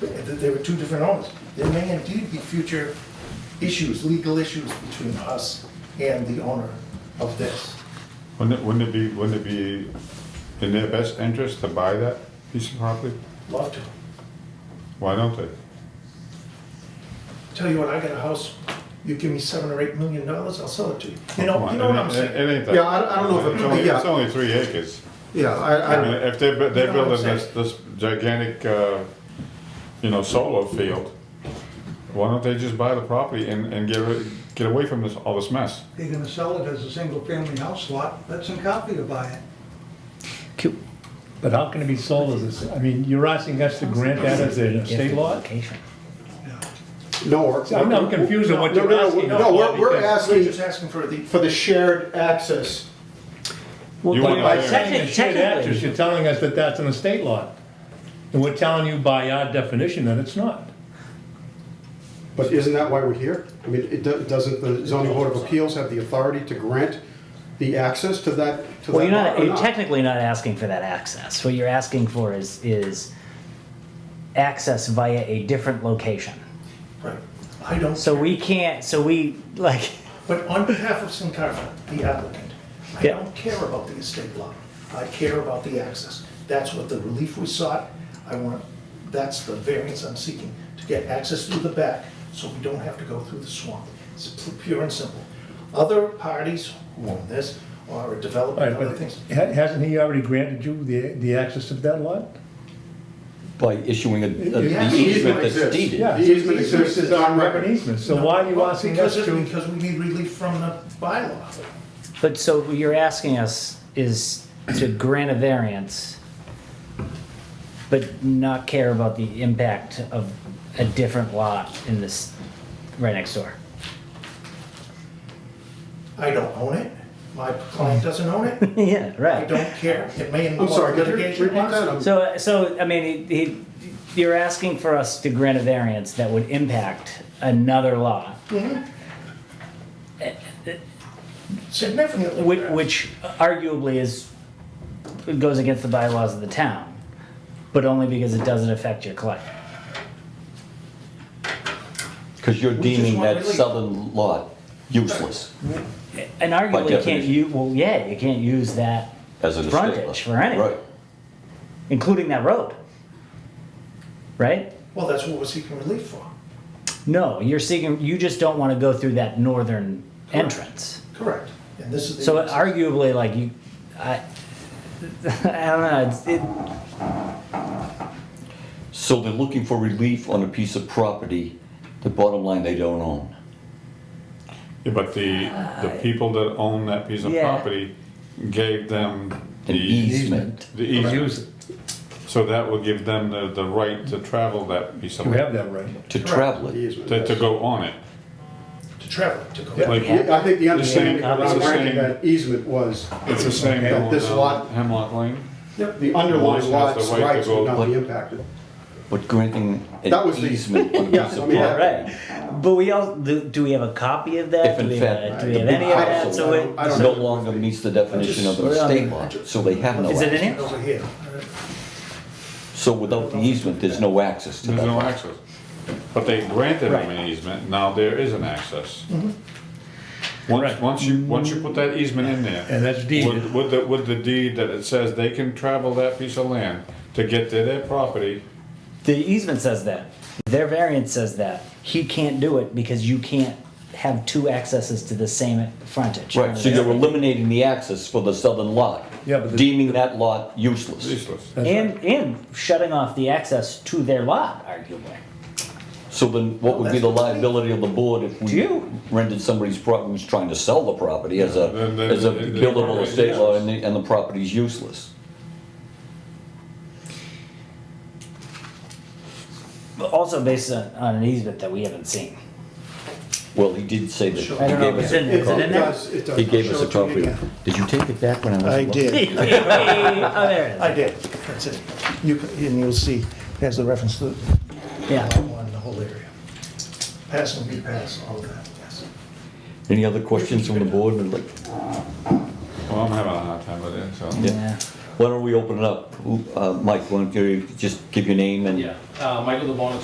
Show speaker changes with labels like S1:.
S1: that there were two different owners. There may indeed be future issues, legal issues between us and the owner of this.
S2: Wouldn't it, wouldn't it be, wouldn't it be in their best interest to buy that piece of property?
S1: Love to.
S2: Why don't they?
S1: Tell you what, I got a house, you give me seven or eight million dollars, I'll sell it to you. You know, you know what I'm
S2: It-
S1: saying?
S2: It ain't that.
S3: Yeah, I- I don't know if it-
S2: It's only,
S3: yeah.
S2: it's only three acres.
S3: Yeah, I,
S2: I mean,
S3: I,
S2: if they're, bu-
S1: You
S2: they're
S1: know what I'm
S2: building this, this gigantic, uh, you know, solar field, why don't they just buy the property and, and get, rid- get away from this, all this mess?
S4: They're gonna sell it as a single-family house lot, let some copy to buy it.
S5: But how can it be sold as this, I mean, you're asking us to grant that as an estate lot?
S4: Yeah.
S3: no, we're.
S5: I'm- I'm confused on what
S3: No,
S5: you're
S3: no, no,
S5: asking
S3: No, we're, we're
S5: because-
S1: We're
S3: asking
S1: just asking for the,
S3: for the shared access.
S2: You
S5: But
S2: wanna buy
S5: by
S2: it?
S5: saying it's shared access, you're telling us that that's an estate lot. And we're telling you by our definition that it's not.
S3: But isn't that why we're here? I mean, it do- doesn't the zoning board of appeals have the authority to grant the access to that? to
S6: Well, you're
S3: that lot
S6: not,
S3: or
S6: you're technically not asking for that access. What you're asking for is, is access via a different location.
S1: right, I don't.
S6: So we can't, so we, like,
S1: But on behalf of Sincarfa, the applicant, I
S6: Yeah.
S1: don't care about the estate lot. I care about the access. That's what the relief we sought. I want, that's the variance I'm seeking, to get access through the back so we don't have to go through the swamp. It's pu- pure and simple. Other parties who own this or are
S5: All
S1: developing
S5: right,
S1: other
S5: but
S1: things.
S5: ha- hasn't he already granted you the, the access to that lot?
S7: By issuing a, a
S5: Yeah,
S7: an
S3: the easement
S7: easement that's
S3: exists.
S7: deeded.
S5: Yeah.
S3: The easement exists, it's on record.
S5: An easement, so why are you asking us
S1: Because,
S5: to?
S1: it- because we need relief from the bylaw.
S6: but so what you're asking us is to grant a variance, but not care about the impact of a different lot in this, right next door.
S1: I don't own it. My client doesn't own it.
S6: Yeah,
S1: I
S6: right.
S1: don't care. It may
S3: I'm
S1: involve
S3: sorry, could you
S1: litigation.
S3: repeat that? I'm-
S6: So, so, I mean, he, he, you're asking for us to grant a variance that would impact another lot,
S1: Significantly.
S6: which,
S1: perhaps.
S6: which arguably is, goes against the bylaws of the town, but only because it doesn't affect your client.
S7: Because you're
S1: just
S7: deeming
S1: want
S7: that
S1: relief.
S7: southern lot useless
S6: And arguably can't
S7: definition.
S6: you, well, yeah, you can't use that,
S7: as an estate lot.
S6: Frontage for anything.
S7: Right.
S6: including that road. Right?
S1: Well, that's what we're seeking relief for.
S6: No, you're seeking, you just don't wanna go through that northern
S1: Correct.
S6: entrance.
S1: Correct. And this is the.
S6: So arguably, like you, I, I don't know, it's, it,
S7: So they're looking for relief on a piece of property, the bottom line, they don't own.
S2: Yeah, but the, the people that own that piece of
S6: Yeah.
S2: property gave them the.
S7: An easement.
S2: The
S5: to
S2: easement.
S5: Use it,
S2: So that will give them the, the right to travel that piece of.
S5: you have that right.
S7: To travel
S3: The
S7: it.
S3: easement,
S2: To, to
S3: yes.
S2: go on it.
S1: To travel, to go.
S2: Like,
S3: Yeah, I think the understanding
S2: same-
S3: around
S2: it's the
S3: granting
S2: same-
S3: that easement was,
S2: It's the same
S3: Okay,
S2: going
S3: this
S2: down
S3: lot-
S2: Hemlock Lane.
S3: the underlying
S2: One has the
S3: lot's
S2: right to
S3: rights
S2: go-
S3: would not be impacted.
S7: But granting
S3: That
S7: an
S3: was the-
S7: easement on a
S3: Yeah,
S7: piece
S3: I
S7: of
S3: mean, that-
S7: property.
S6: Right, but we all, do, do we have a copy of that?
S7: If
S6: Do
S7: in
S6: we have,
S7: fact,
S6: a- do we
S7: the
S6: have any
S7: big
S6: of that?
S7: parcel
S6: So it,
S3: I don't
S7: no
S3: know.
S7: longer meets the definition of an
S6: Just-
S7: estate lot, so they have no
S6: Is it in
S7: access.
S6: here?
S1: Over here.
S7: So without the easement, there's no access to that.
S2: There's no
S7: lot.
S2: access. But they granted them an easement, now there is an access. Once,
S5: Right.
S2: once you, once you put that easement in there.
S5: And that's deeded.
S2: With, with the, with the deed that it says they can travel that piece of land to get to their property,
S6: the easement says that, their variance says that, he can't do it because you can't have two accesses to the same frontage.
S7: Right, so you're eliminating the access for the southern lot.
S5: Yeah, but the-
S7: Deeming that lot useless.
S2: useless.
S6: And, and shutting off the access to their lot, arguably.
S7: So then what would be the liability of the board if we
S6: You.
S7: rendered somebody's property, who's trying to sell the property as a,
S2: Then- then-
S7: as a
S2: then- then
S7: buildable
S2: property's
S7: estate lot
S2: useless.
S7: and the, and the property's useless?
S6: But Also based on, on an easement that we haven't seen.
S7: Well, he did say that,
S6: I
S7: he
S6: don't know,
S7: gave
S6: is
S7: us,
S6: it,
S7: a-
S6: is it
S3: It
S6: in there?
S3: does, it does.
S7: he gave us
S3: Show
S7: a
S3: it to me
S7: copy.
S3: again.
S7: Did you take it back when I was?
S1: I
S7: looking?
S1: did,
S6: Oh, there it
S1: I did. That's it. You, can- and you'll see, there's the reference to
S6: is, yeah.
S1: on the whole area. Pass and repass, all of that, yes.
S7: Any other questions from the board? Like,
S2: Well, I'm having a hard time with it, so.
S6: Yeah.
S7: Why don't we open it up? Uh, Mike, why don't you just give your name and?
S8: Yeah, uh, Michael DeBona,